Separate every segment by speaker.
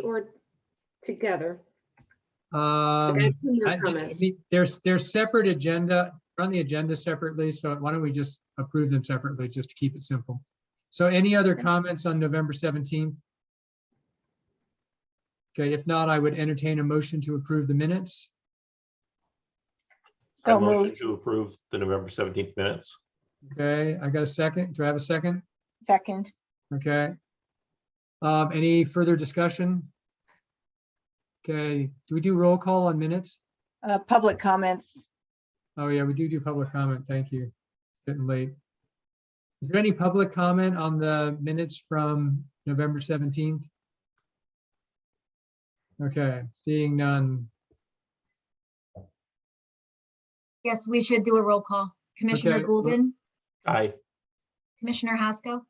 Speaker 1: or together? Like,
Speaker 2: Um,
Speaker 1: I've seen your
Speaker 2: I think- I
Speaker 1: comments.
Speaker 2: mean, There's, there's separate agenda, run the agenda separately, so why don't we just approve them separately, just to keep it simple? So any other comments on November 17th? Okay, if not, I would entertain a motion to approve the minutes.
Speaker 3: I
Speaker 4: So
Speaker 3: motion
Speaker 4: moved,
Speaker 3: to approve the November 17th minutes.
Speaker 2: Okay, I got a second. Do I have a second?
Speaker 4: second,
Speaker 2: Okay. Um, any further discussion? Okay, do we do roll call on minutes?
Speaker 4: uh, public comments.
Speaker 2: Oh, yeah, we do do public comment. Thank you. Getting late. Is there any public comment on the minutes from November 17th? Okay, seeing none.
Speaker 5: Yes, we should do a roll call. Commissioner
Speaker 2: Okay.
Speaker 5: Golden,
Speaker 3: Aye.
Speaker 5: Commissioner Haskell,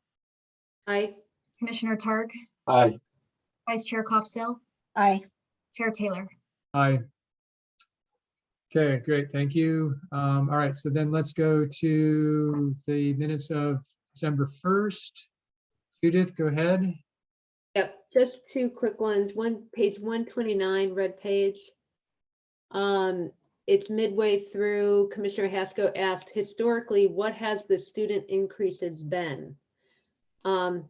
Speaker 1: Aye.
Speaker 5: Commissioner Targ,
Speaker 3: Aye.
Speaker 5: Vice Chair Koffstil,
Speaker 4: Aye,
Speaker 5: Chair Taylor.
Speaker 2: Aye. Okay, great. Thank you. Um, All right, so then let's go to the minutes of December 1st. Judith, go ahead.
Speaker 1: Yep, just two quick ones. One, page one twenty-nine, red page. Um, it's midway through, Commissioner Haskell asked, historically, what has the student increases been? Um,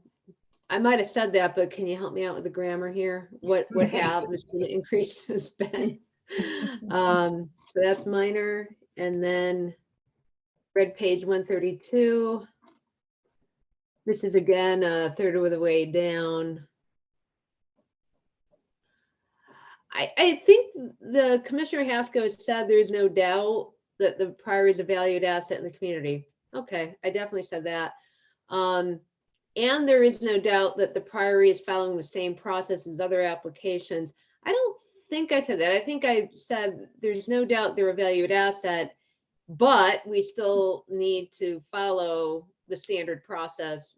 Speaker 1: I might have said that, but can you help me out with the grammar here? What, what have the student increases been? Um, so that's minor, and then red page one thirty-two. This is again, a third of the way down. I, I think the Commissioner Haskell has said there is no doubt that the prior is a valued asset in the community. Okay, I definitely said that. Um, and there is no doubt that the priory is following the same process as other applications. I don't think I said that. I think I said there's no doubt they're a valued asset, but we still need to follow the standard process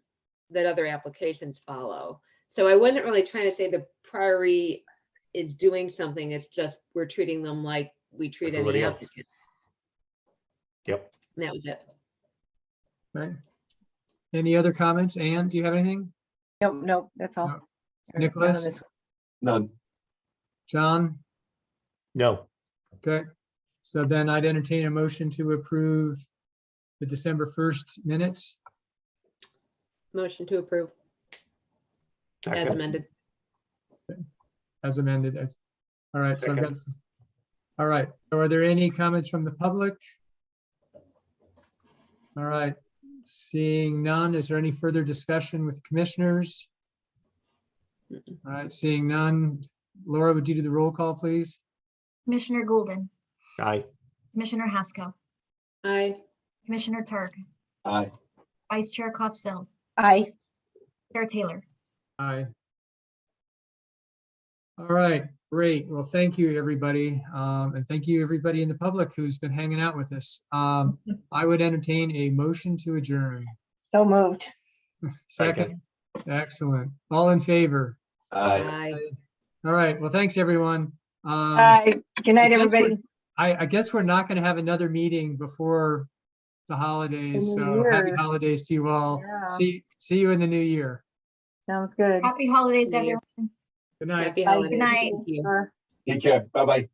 Speaker 1: that other applications follow. So I wasn't really trying to say the priory is doing something. It's just we're treating them like we treat any
Speaker 3: Everybody else.
Speaker 1: applicant.
Speaker 3: Yep.
Speaker 1: And that was it.
Speaker 2: Right? Any other comments? Anne, do you have anything?
Speaker 4: nope, nope, that's all.
Speaker 2: No.
Speaker 4: Or none of
Speaker 2: Nicholas?
Speaker 4: this-
Speaker 3: None.
Speaker 2: John?
Speaker 3: No.
Speaker 2: Okay, so then I'd entertain a motion to approve the December 1st minutes.
Speaker 1: Motion to approve as
Speaker 3: Second.
Speaker 1: amended.
Speaker 2: as amended. as- All right, so I've got, all right, so are there any comments from the public? All right, seeing none, is there any further discussion with commissioners? All right, seeing none, Laura, would you do the roll call, please?
Speaker 5: Commissioner Golden,
Speaker 3: Aye.
Speaker 5: Commissioner Haskell,
Speaker 1: Aye.
Speaker 5: Commissioner Targ,
Speaker 3: Aye.
Speaker 5: Vice Chair Koffstil,
Speaker 4: Aye,
Speaker 5: Chair Taylor.
Speaker 2: Aye. All right, great. Well, thank you, everybody. Um, and thank you, everybody in the public who's been hanging out with us. Um, I would entertain a motion to adjourn.
Speaker 4: so moved.
Speaker 2: Second, excellent. All in favor?
Speaker 1: Aye.
Speaker 2: All right, well, thanks, everyone. Um, I,
Speaker 4: Aye, good night,
Speaker 2: guess we're-
Speaker 4: everybody.
Speaker 2: I guess we're not going to have another meeting before the holidays,
Speaker 4: In the
Speaker 2: so happy
Speaker 4: year.
Speaker 2: holidays to you all.
Speaker 4: Yeah.
Speaker 2: See, see you in the new year.
Speaker 4: Sounds good.
Speaker 5: Happy holidays,
Speaker 4: Yeah.
Speaker 5: everyone.
Speaker 2: Good night.
Speaker 1: Happy
Speaker 4: Bye.
Speaker 1: holidays.
Speaker 5: night.
Speaker 1: Thank you.
Speaker 4: Sure.
Speaker 3: Take care. Bye-bye.